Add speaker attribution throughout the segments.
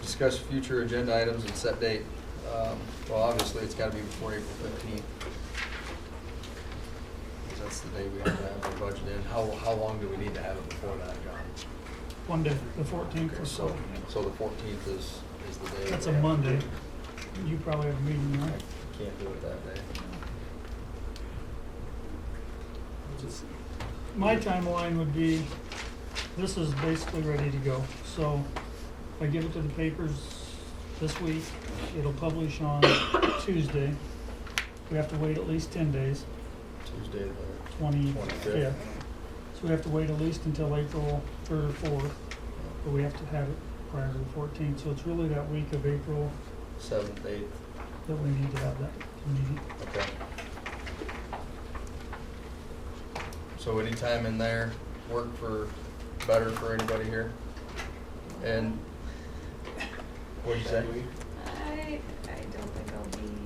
Speaker 1: discuss future agenda items and set date. Um, Well, obviously, it's gotta be before April fifteenth. That's the day we have to have the budget in. How, how long do we need to have it before that, John?
Speaker 2: One day, the fourteenth or so.
Speaker 1: So the fourteenth is, is the day.
Speaker 2: That's
Speaker 1: we
Speaker 2: a
Speaker 1: have to
Speaker 2: Monday.
Speaker 1: do it.
Speaker 2: You probably have a meeting,
Speaker 1: I
Speaker 2: right?
Speaker 1: Can't do it that day.
Speaker 2: My timeline would be, this is basically ready to go. So I give it to the papers this week. It'll publish on Tuesday. We have to wait at least ten days,
Speaker 1: Tuesday, the
Speaker 2: twenty-fifth.
Speaker 1: twenty-fifth.
Speaker 2: So we have to wait at least until April third or fourth, but we have to have it prior to the fourteenth. So it's really that week of April
Speaker 1: Seventh, eighth,
Speaker 2: that we need to have that meeting.
Speaker 1: okay. So any time in there work for, better for anybody here? And what'd you say?
Speaker 3: I, I don't think I'll be in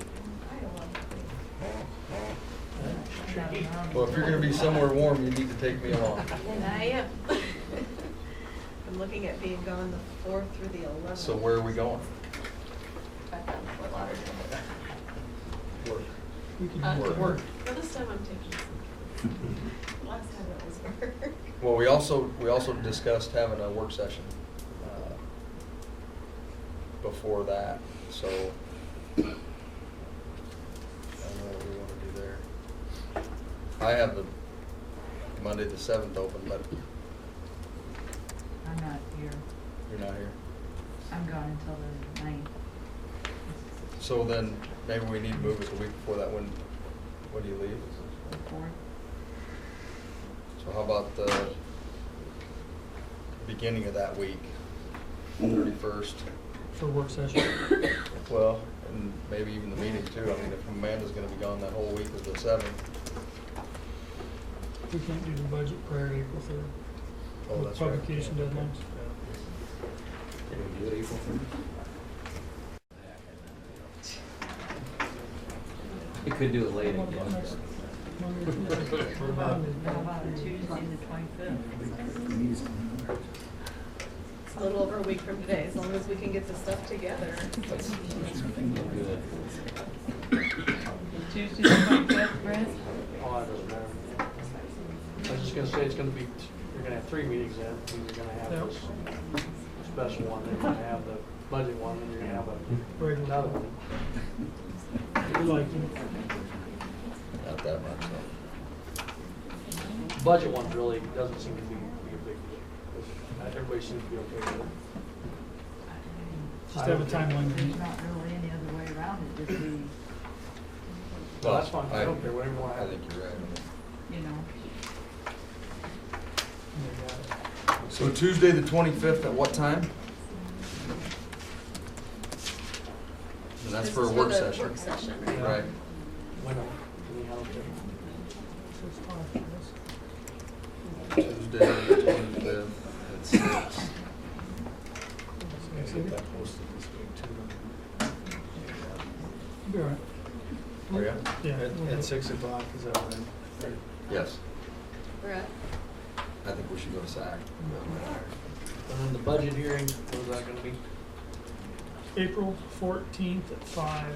Speaker 3: Iowa.
Speaker 1: Well, if you're gonna be somewhere warm, you need to take me along.
Speaker 3: And I am. I'm looking at being gone the fourth through the eleventh.
Speaker 1: So where are we going?
Speaker 3: Back down to Fort Lauderdale.
Speaker 1: Work.
Speaker 2: We could
Speaker 3: Uh,
Speaker 2: do
Speaker 1: Work.
Speaker 2: that.
Speaker 1: work.
Speaker 3: Well, this time I'm taking some. Last time it was work.
Speaker 1: Well, we also, we also discussed having a work session uh, before that, so I don't know what we want to do there. I have the Monday the seventh open, but
Speaker 4: I'm not here.
Speaker 1: you're not here.
Speaker 4: I'm gone until the ninth.
Speaker 1: So then, maybe we need to move it the week before that, when, when do you leave?
Speaker 4: The fourth.
Speaker 1: So how about the beginning of that week, thirty-first?
Speaker 2: For work session.
Speaker 1: Well, and maybe even the meeting too. I mean, if Amanda's gonna be gone that whole week of the seventh.
Speaker 2: We can't do the budget prior to April third.
Speaker 1: Oh, that's right.
Speaker 2: Publication deadlines.
Speaker 5: We could do it late again.
Speaker 4: How about how about Tuesday, the twenty-fifth?
Speaker 3: It's a little over a week from today, as long as we can get the stuff together.
Speaker 5: Good.
Speaker 4: Tuesday, the twenty-fifth, Brent?
Speaker 6: Oh, I don't know. I was just gonna say, it's gonna be, you're gonna have three meetings then, and you're gonna have this special one, then you're gonna have the budget one, then you're gonna have a- another one.
Speaker 2: We like
Speaker 1: Not that much, so.
Speaker 6: Budget one really doesn't seem to be, be a big deal. Uh, Everybody seems to be okay with it.
Speaker 2: Just have a
Speaker 4: There's
Speaker 2: timeline.
Speaker 4: not really any other way around it, just we,
Speaker 6: Well, that's fine, I don't care, whatever you wanna
Speaker 1: I
Speaker 6: have.
Speaker 1: think you're right.
Speaker 4: you know.
Speaker 1: So Tuesday, the twenty-fifth, at what time? And that's
Speaker 3: This
Speaker 1: for a
Speaker 3: is
Speaker 1: work
Speaker 3: the
Speaker 1: session.
Speaker 3: Work session, right?
Speaker 1: Right.
Speaker 6: Whatever, anyhow, okay.
Speaker 1: Tuesday, the twenty-fifth, at six. Get that posted this week
Speaker 2: Be all right.
Speaker 1: too. Are ya?
Speaker 2: Yeah. we'll do it.
Speaker 6: o'clock, is that right?
Speaker 1: Yes.
Speaker 3: We're at,
Speaker 1: I think we should go to SAC.
Speaker 6: And then the budget hearing, what is that gonna be?
Speaker 2: April fourteenth at five.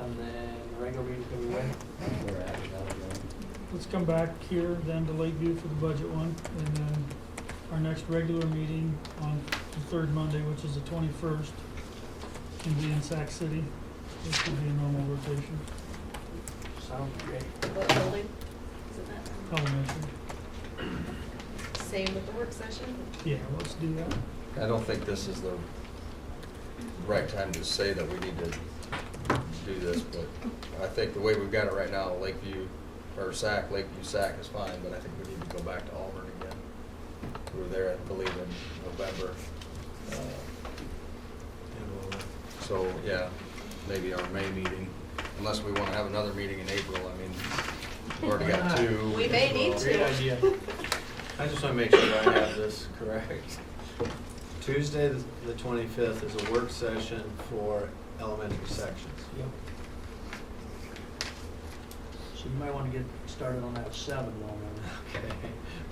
Speaker 6: And then the regular meeting's gonna be when?
Speaker 5: We're at it, that'll go.
Speaker 2: Let's come back here then to Lakeview for the budget one. And then our next regular meeting on the third Monday, which is the twenty-first, can be in Sac City. This will be a normal rotation,
Speaker 6: Sounds great.
Speaker 3: what building? Is it that?
Speaker 2: elementary.
Speaker 7: Oh.
Speaker 3: Same with the work session?
Speaker 2: Yeah, let's do that.
Speaker 1: I don't think this is the right time to say that we need to do this, but I think the way we've got it right now, Lakeview, or SAC, Lakeview SAC is fine, but I think we need to go back to Auburn again. We were there, I believe, in November. Uh, So, yeah, maybe our May meeting, unless we wanna have another meeting in April, I mean, we've already got two.
Speaker 3: We may need to.
Speaker 7: Great idea. I just want to make sure I have this correct. Tuesday, the- the twenty-fifth is a work session for elementary sections.
Speaker 6: Yep. So you might wanna get started on that seven one.
Speaker 7: Okay.